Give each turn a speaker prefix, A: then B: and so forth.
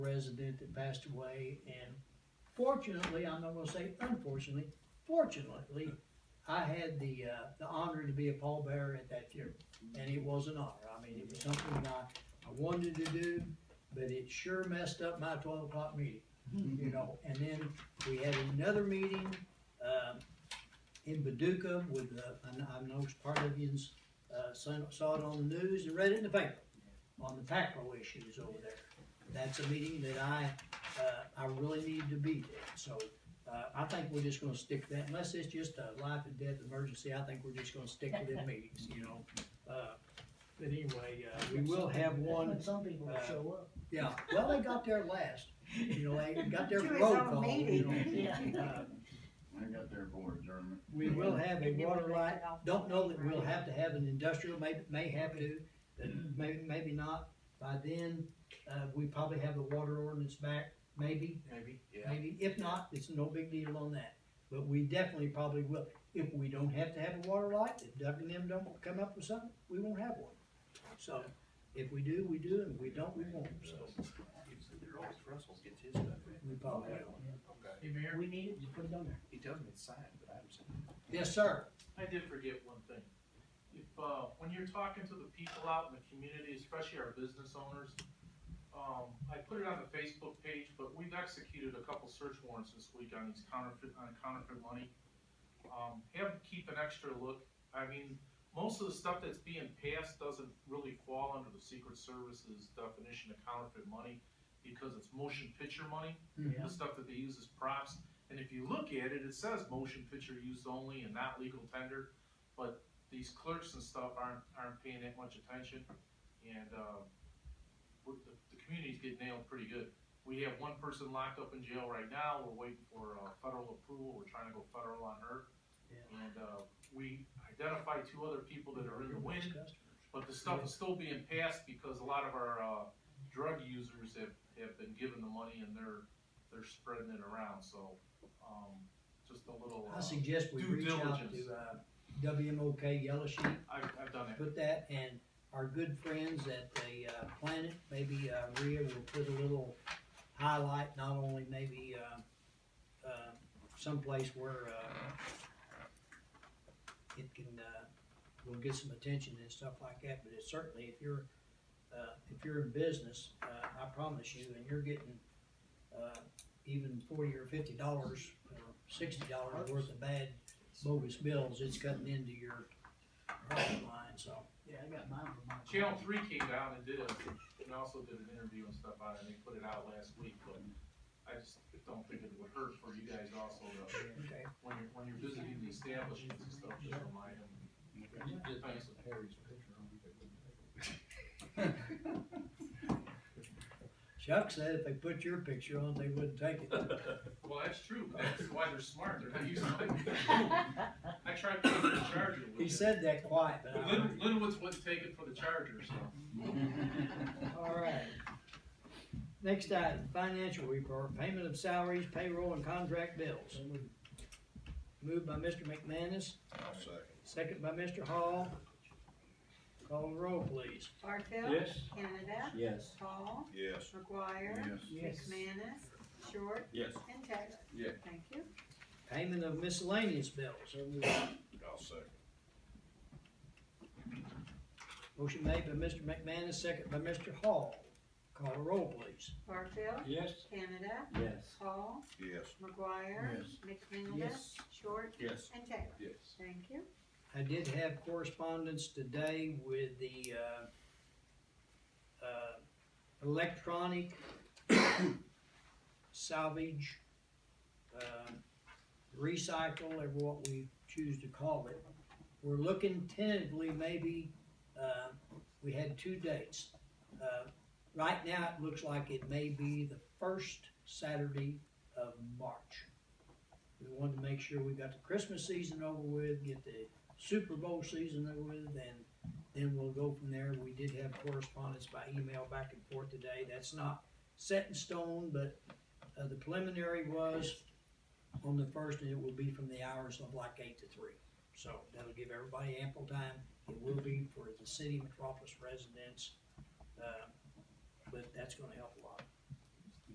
A: resident that passed away, and fortunately, I'm not gonna say unfortunately, fortunately, I had the, uh, the honor to be a pallbearer at that funeral, and it was an honor, I mean, it was something I, I wanted to do, but it sure messed up my twelve o'clock meeting, you know, and then we had another meeting, um, in Paducah with, uh, I know, I know part of yous, uh, saw saw it on the news and read it in the paper, on the PACRO issues over there that's a meeting that I, uh, I really need to be at. So, uh, I think we're just gonna stick to that, unless it's just a life and death emergency, I think we're just gonna stick to them meetings, you know? Uh, But anyway, uh, we will have one,
B: But some people
A: uh,
B: will show up.
A: yeah, well, they got there last, you know, they got their
C: To his
A: road
C: own
A: call, you
C: meeting.
A: know?
B: Yeah.
A: Uh,
D: I got there for adjournment.
A: We will have a
C: Maybe
A: water
C: we'll
A: right,
C: lift it off
A: don't know that we'll
C: right.
A: have to have an industrial, may, may have to, but may, maybe not. By then, uh, we probably have the water ordinance back, maybe,
E: Maybe, yeah.
A: Maybe, if not, it's no big deal on that, but we definitely probably will. If we don't have to have a water light, if Doug and them don't come up with something, we won't have one. So, if we do, we do, and if we don't, we won't, so
E: Always Russell gets his stuff in.
A: we probably will.
E: Okay.
F: Hey, Mayor,
B: We need it, just put it on there.
E: He tells me it's signed, but I haven't seen it.
A: Yes, sir.
F: I did forget one thing. If, uh, when you're talking to the people out in the community, especially our business owners, um, I put it on the Facebook page, but we've executed a couple search warrants this week on these counterfeit, on counterfeit money. Um, have, them keep an extra look. I mean, most of the stuff that's being passed doesn't really fall under the Secret Service's definition of counterfeit money because it's motion picture money.
B: Yeah.
A: Mm-hmm.
F: the stuff that they use as props. And if you look at it, it says motion picture used only and not legal tender, but these clerks and stuff aren't, aren't paying that much attention. And, uh, we're, the, the community's getting nailed pretty good. We have one person locked up in jail right now, we're waiting for, uh, federal approval, we're trying to go federal on her.
A: Yeah.
F: And, uh, we identified two other people that are in the wind,
A: Customers.
F: but the stuff is still being passed because a lot of our, uh, drug users have, have been given the money and they're, they're spreading it around, so, um, just a little,
A: I
F: uh,
A: suggest we
F: Due
A: reach out
F: diligence.
A: to, uh, WMOK Yellow Sheet,
F: I've, I've done it.
A: put that, and our good friends at the, uh, Planet, maybe, uh, Rhea will put a little highlight, not only maybe, uh, uh, someplace where, uh, it can, uh, will get some attention and stuff like that, but it certainly, if you're, uh, if you're in business, uh, I promise you, and you're getting, uh, even forty or fifty dollars, or sixty dollars worth of bad bogus bills, it's cutting into your bottom line, so.
B: Yeah, I got mine for mine.
F: Channel Three came down and did a, and also did an interview and stuff on it, and they put it out last week, but I just don't think it would hurt for you guys also to,
A: Okay,
F: when you're, when you're visiting the establishments and stuff, just remind them. You did things with
E: Harry's picture on it.
A: Chuck said if they put your picture on, they wouldn't take it.
F: Well, that's true, but that's why they're smart, they're not using it. I tried putting it in the charger.
A: He said that quiet, but
F: But
A: I.
F: Lin, Linwood's wouldn't take it for the charger, so.
A: All right. Next item, financial report, payment of salaries, payroll, and contract bills. Moved by Mr. McManus,
D: I'll second.
A: second by Mr. Hall. Call the roll, please.
C: Barfield. Canada.
G: Yes.
C: Hall.
D: Yes.
C: McGuire.
D: Yes.
B: Yes.
C: McManus. Short.
G: Yes.
C: And Taylor.
E: Yeah.
C: Thank you.
A: Payment of miscellaneous bills.
B: So we-
D: I'll second.
A: Motion made by Mr. McManus, second by Mr. Hall. Call the roll, please.
C: Barfield.
G: Yes.
C: Canada.
G: Yes.
C: Hall.
D: Yes.
C: McGuire. McManus.
A: Yes.
C: Short.
G: Yes.
C: And Taylor.
E: Yes.
C: Thank you.
A: I did have correspondence today with the, uh, uh, electronic salvage, uh, recycle, or what we choose to call it. We're looking tentatively, maybe, uh, we had two dates. Uh, Right now, it looks like it may be the first Saturday of March. We wanted to make sure we got the Christmas season over with, get the Super Bowl season over with, and then we'll go from there. We did have correspondence by email back and forth today. That's not set in stone, but uh, the preliminary was on the first, and it will be from the hours of like eight to three. So that'll give everybody ample time. It will be for the city metropolis residents, uh, but that's gonna help a lot.